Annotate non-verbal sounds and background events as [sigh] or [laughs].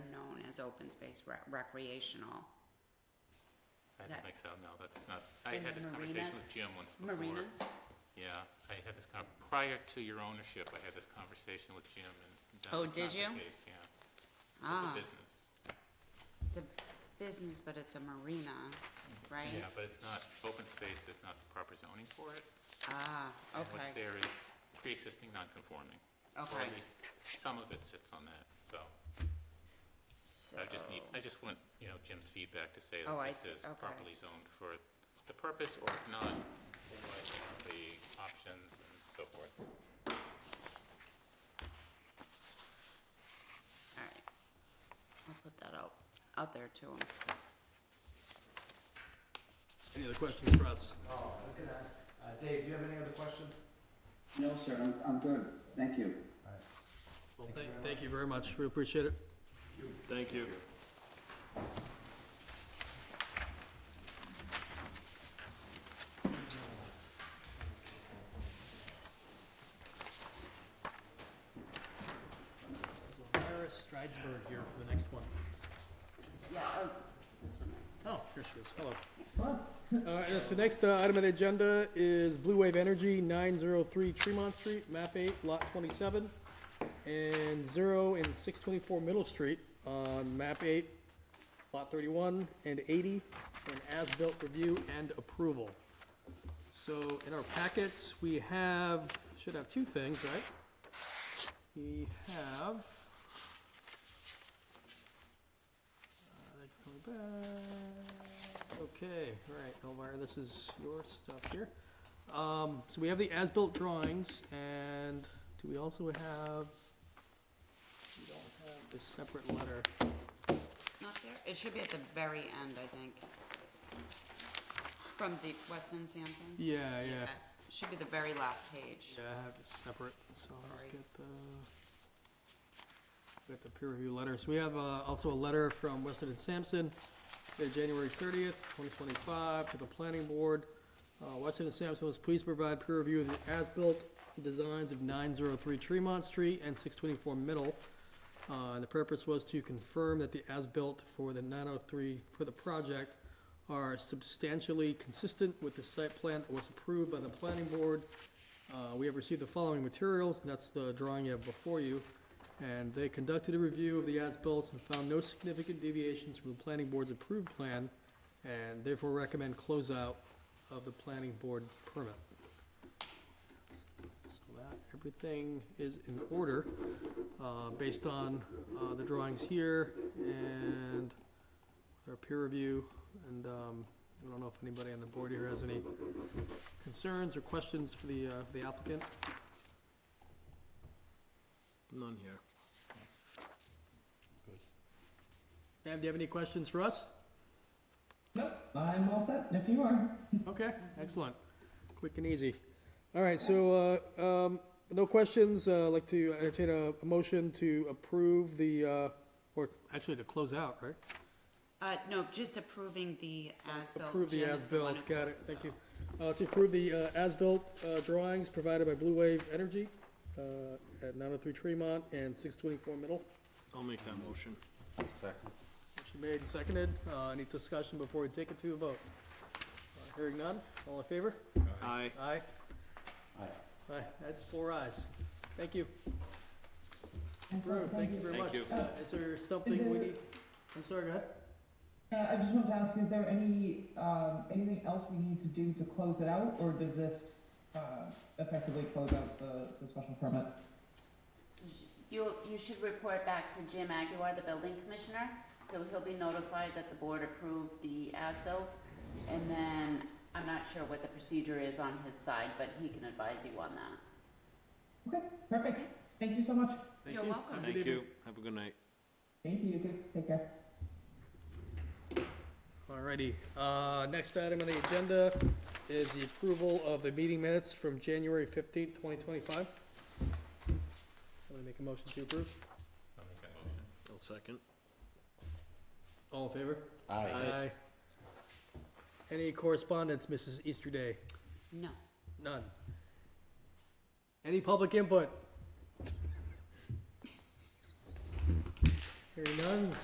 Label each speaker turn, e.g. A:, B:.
A: is open space rec- recreational.
B: I
A: That-
B: don't think so, no, that's not, I
A: In
B: had this conversation
A: marinas?
B: with Jim once before.
A: Marinas,
B: Yeah, I had this, con- prior to your ownership, I had this conversation with Jim, and
A: Oh,
B: that's just
A: did
B: not
A: you?
B: the case, yeah.
A: Ah.
B: With the business,
A: it's a business, but it's a marina, right?
B: Mm-hmm. yeah, but it's not, open space is not the proper zoning for it.
A: Ah,
B: And What's
A: okay,
B: there is pre-existing non-conforming. Or
A: okay.
B: at least, some of it sits on that, so
A: So,
B: I just need, I just want, you know, Jim's feedback to say that
A: Oh, I
B: this
A: see,
B: is
A: okay.
B: properly zoned for the purpose, or if not, what are the options and so forth.
A: All right. I'll put that out, out there to him.
C: Any other questions for us?
D: Oh, I was gonna ask, uh, Dave, do you have any other questions?
E: No, sir, I'm, I'm good, thank you.
C: Well, thank, thank you very much. We appreciate it. Thank you. Myra Stridsberg here for the next one.
A: Yeah, oh, this one.
C: Oh, here she is. Hello.
F: All right, so next uh, item on the agenda is Blue Wave Energy, 903 Tremont Street, map 8, lot 27, and 0 and 624 Middle Street on map 8, lot 31 and 80, and as-built review and approval. So in our packets, we have, should have two things, right? We have... Uh, they can go back. Okay, all right, Elvira, this is your stuff here. Um, so we have the as-built drawings, and do we also have, we don't have this separate letter.
A: Not there? It should be at the very end, I think. From the Weston Sampson?
F: Yeah, yeah.
A: It Should be the very last page.
F: Yeah, I have it separate, so I'll
A: Sorry.
F: just get the, get the peer review letter. So we have, uh, also a letter from Weston and Sampson, dated January thirtieth, twenty twenty-five, to the planning board. Uh, Weston and Sampson was pleased to provide peer review of the as-built designs of nine zero three Tremont Street and six twenty-four Middle. Uh, and the purpose was to confirm that the as-built for the nine oh three, for the project, are substantially consistent with the site plan that was approved by the planning board uh, we have received the following materials, and that's the drawing you have before you. And they conducted a review of the as-built and found no significant deviations from the planning board's approved plan, and therefore recommend closeout of the planning board permit. So that, everything is in order, uh, based on, uh, the drawings here and our peer review. And, um, I don't know if anybody on the board here has any concerns or questions for the, uh, the applicant?
C: None here.
F: Pam, do you have any questions for us?
E: Nope, I'm all set, if you are. [laughs]
F: Okay, excellent. Quick and easy. All right, so, uh, um, no questions, uh, I'd like to entertain a, a motion to approve the, uh, or actually to close out, right?
A: Uh, no, just approving the as-built.
F: Approve the
A: Jim is the one
F: as-built,
A: who
F: got it,
A: closes
F: thank
A: out.
F: you. Uh, to approve the, uh, as-built, uh, drawings provided by Blue Wave Energy, uh, at nine oh three Tremont and six twenty-four Middle.
C: I'll make that motion.
F: Motion made and seconded. Uh, any discussion before we take it to a vote? Uh, Hearing none, all in favor?
C: Aye.
F: Aye? Aye. Aye, that's four ayes. Thank you. Approved. thank you very
C: Thank
F: much.
C: you.
F: Is there something we need? I'm sorry, go ahead.
G: Uh, I just wanted to ask, is there any, um, anything else we need to do to close it out, or does this, uh, effectively close out the, the special permit?
A: So sh- You, you should report back to Jim Aguirre, the building commissioner, so he'll be notified that the board approved the as-built. And then, I'm not sure what the procedure is on his side, but he can advise you on that.
G: Okay, perfect, thank you so much,
F: Thank
A: You're
F: you.
A: welcome.
F: Have a good
C: Thank
F: evening.
C: you. Have a good night.
G: thank you, you too, take care.
F: Alrighty, uh, next item on the agenda is the approval of the meeting minutes from January fifteenth, twenty twenty-five. I'm gonna make a motion to approve.
B: I'll make that motion.
C: I'll second.
F: All in favor?
C: Aye.
F: Any correspondence, Mrs. Easterday?
A: No.
F: None. Any public input? Hearing none,